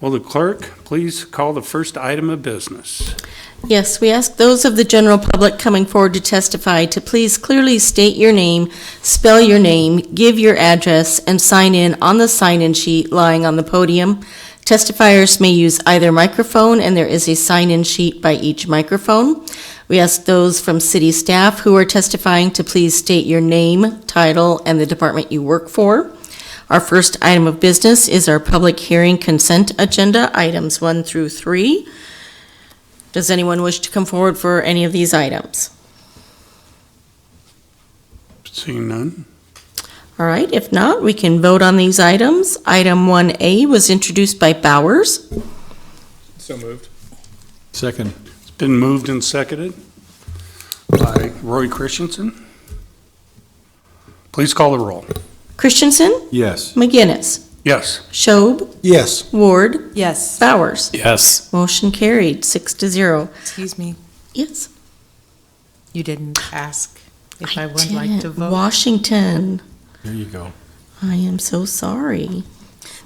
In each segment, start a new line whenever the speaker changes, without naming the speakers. Will the clerk please call the first item of business?
Yes, we ask those of the general public coming forward to testify to please clearly state your name, spell your name, give your address, and sign in on the sign-in sheet lying on the podium. Testifiers may use either microphone, and there is a sign-in sheet by each microphone. We ask those from city staff who are testifying to please state your name, title, and the department you work for. Our first item of business is our public hearing consent agenda, items one through three. Does anyone wish to come forward for any of these items?
Seeing none,
All right, if not, we can vote on these items. Item 1A was introduced by Bowers.
So moved.
Second.
it's been moved and seconded by Roy Christensen. Please call the roll.
Christensen,
Yes.
McGinnis,
Yes,
Schob,
Yes.
Ward,
Yes,
Bowers.
Yes.
Motion carried, six to zero.
excuse me,
Yes.
you didn't ask if I would like to
did.
vote.
Washington,
There you go.
I am so sorry.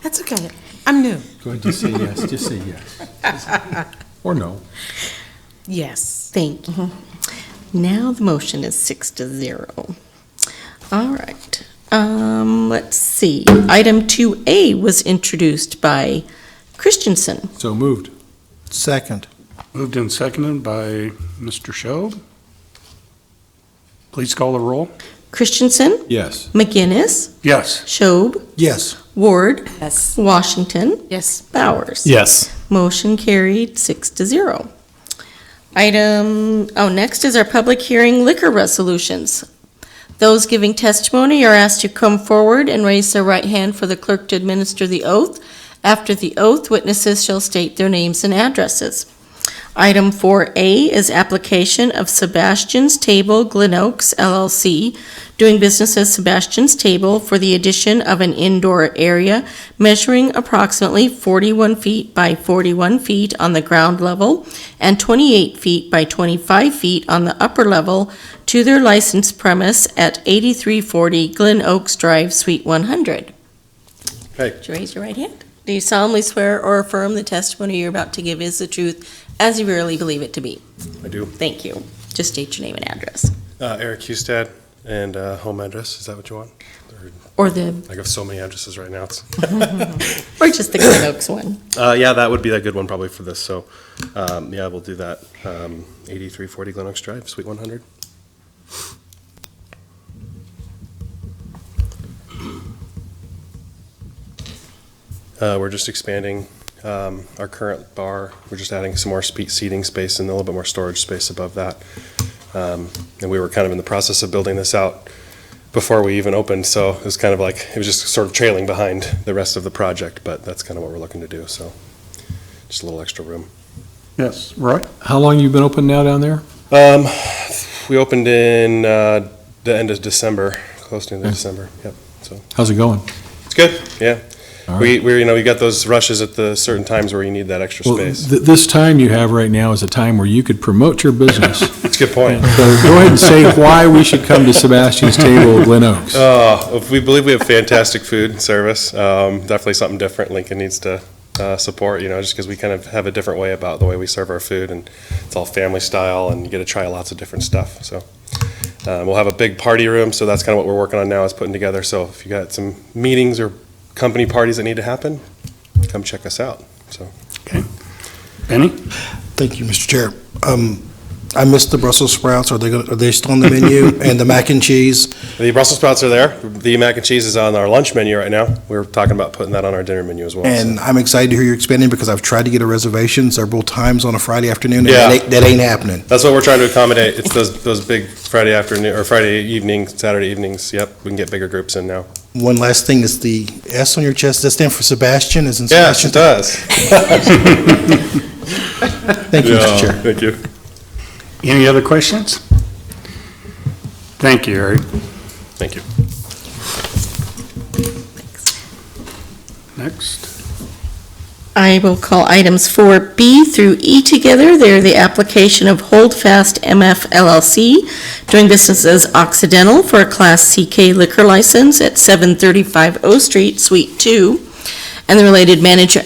That's okay, I'm new.
Go ahead, just say yes, just say yes. Or no.
Yes.
Thank you.
Mm-hmm.
Now the motion is six to zero. All right, um, let's see. Item 2A was introduced by Christensen.
So moved.
Second.
moved and seconded by Mr. Shob. Please call the roll.
Christensen,
Yes.
McGinnis,
Yes,
Schob,
Yes.
Ward,
Yes.
Washington,
Yes.
Bowers.
Yes.
Motion carried, six to zero. Item, oh, next is our public hearing liquor resolutions. Those giving testimony are asked to come forward and raise their right hand for the clerk to administer the oath. After the oath, witnesses shall state their names and addresses. Item 4A is application of Sebastian's Table Glen Oaks LLC, doing business as Sebastian's Table for the addition of an indoor area measuring approximately 41 feet by 41 feet on the ground level and 28 feet by 25 feet on the upper level to their licensed premise at 8340 Glen Oaks Drive, Suite 100.
Okay.
Would you raise your right hand? Do you solemnly swear or affirm the testimony you're about to give is the truth as you really believe it to be?
I do.
Thank you. Just state your name and address.
Uh, Eric Hustad and uh, home address. Is that what you want?
Or the,
I have so many addresses right now. It's-
or just the Glen Oaks one.
Uh, yeah, that would be a good one probably for this. So, um, yeah, we'll do that. Um, 8340 Glen Oaks Drive, Suite 100. Uh, we're just expanding um, our current bar. We're just adding some more spe- seating space and a little bit more storage space above that. Um, and we were kind of in the process of building this out before we even opened, so it was kind of like it was just sort of trailing behind the rest of the project. But that's kind of what we're looking to do. So just a little extra room.
yes, Roy?
How long you been open now down there?
Um, we opened in uh, the end of December, close to the end of
Okay.
December. Yep,
How's it going?
it's good. Yeah,
All
we we you know we got those rushes at the certain times where you need that extra
Well,
space.
th- this time you have right now is a time where you could promote your business. So
It's a good point.
go ahead and say why we should come to Sebastian's Table at Glen Oaks.
Uh, we believe we have fantastic food and service. Um, definitely something different Lincoln needs to uh, support, you know, just because we kind of have a different way about the way we serve our food and it's all family style and you get to try lots of different stuff. So uh, we'll have a big party room. So that's kind of what we're working on now is putting together. So if you got some meetings or company parties that need to happen, come check us out.
Benny?
Thank you, Mr. Chair. Um, I missed the Brussels sprouts. Are they, gonna- are they still on the menu? And the mac and cheese?
The Brussels sprouts are there. The mac and cheese is on our lunch menu right now. We are talking about putting that on our dinner menu as well. so.
And I'm excited to hear you're expanding because I've tried to get a reservation several times on a Friday afternoon, and
Yeah.
that ain't- that ain't happening.
That's what we're trying to accommodate. It's those, those big Friday afternoon, or Friday evening, Saturday evenings. Yep, we can get bigger groups in now.
One last thing, is the S on your chest, does that stand for Sebastian? Is in
Yes,
Sebastian?
it does.
Thank you, Mr. Chair.
Thank you.
Any other questions? Thank you, Eric.
Thank you.
Next.
I will call items 4B through E together. They're the application of Holdfast MF LLC, doing business as Occidental for a Class CK liquor license at 735 O Street, Suite 2, and the related manager